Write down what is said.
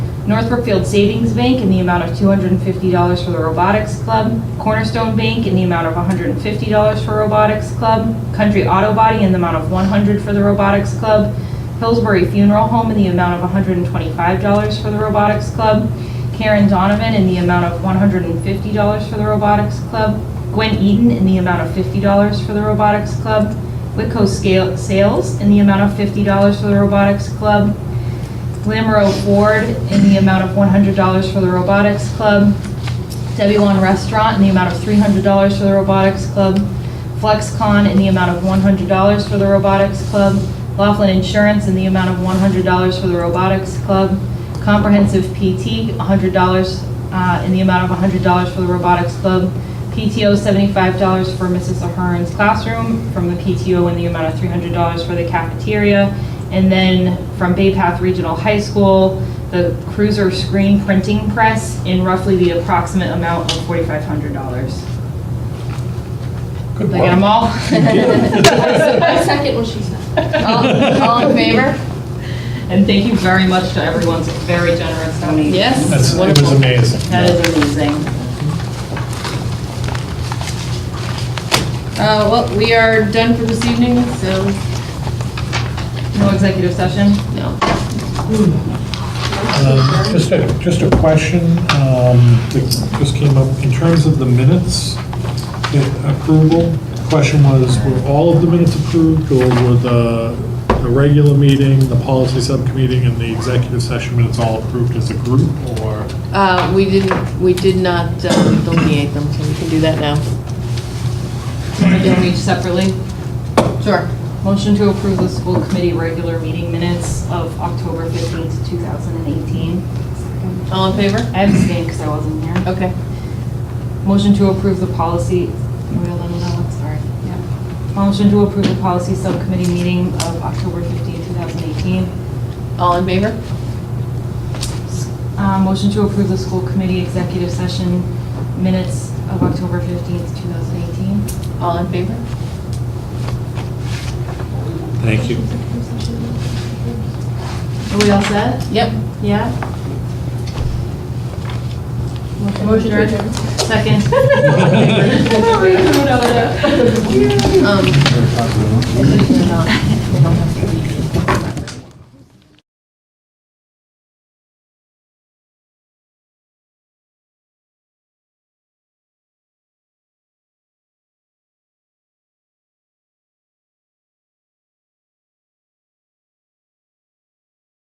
Northbrook Field Savings Bank in the amount of $250 for the Robotics Club, Cornerstone Bank in the amount of $150 for Robotics Club, Country Auto Body in the amount of $100 for the Robotics Club, Hillsbury Funeral Home in the amount of $125 for the Robotics Club, Karen Donovan in the amount of $150 for the Robotics Club, Gwen Eden in the amount of $50 for the Robotics Club, Whitco Scale- Sales in the amount of $50 for the Robotics Club, Glamro Ford in the amount of $100 for the Robotics Club, Debbie Wan Restaurant in the amount of $300 for the Robotics Club, FlexCon in the amount of $100 for the Robotics Club, Laughlin Insurance in the amount of $100 for the Robotics Club, Comprehensive PT, $100, uh, in the amount of $100 for the Robotics Club, PTO $75 for Mrs. Ahern's classroom, from the PTO in the amount of $300 for the cafeteria, and then from Bay Path Regional High School, the Cruiser Screen Printing Press in roughly the approximate amount of $4,500. Good Did I get them work. all? I second what she said. All all in favor? And thank you very much to everyone's very generous donation. Yes. That's, it was Wonderful. amazing. That is amazing. Uh, well, we are done for this evening, so, No executive session? no. Um, Just a, just a question um, that just came up, in terms of the minutes the approval, the question was, were all of the minutes approved, or were the, the regular meeting, the policy subcommittee, and the executive session minutes all approved as a group, or? Uh, we didn't, we did not um, delineate them, so we can do that now. Want to do them each separately? Sure. Motion to approve the school committee regular meeting minutes of October 15th, 2018. All in favor? I abstained because I wasn't here. Okay. Motion to approve the policy, wait, let me know, I'm sorry. Yeah. Motion to approve the policy subcommittee meeting of October 15, 2018. All in favor? Uh, Motion to approve the school committee executive session minutes of October 15, 2018. All in favor? Thank you. Are we all set? Yep. Yeah? Motion to adjourn. Second. Um,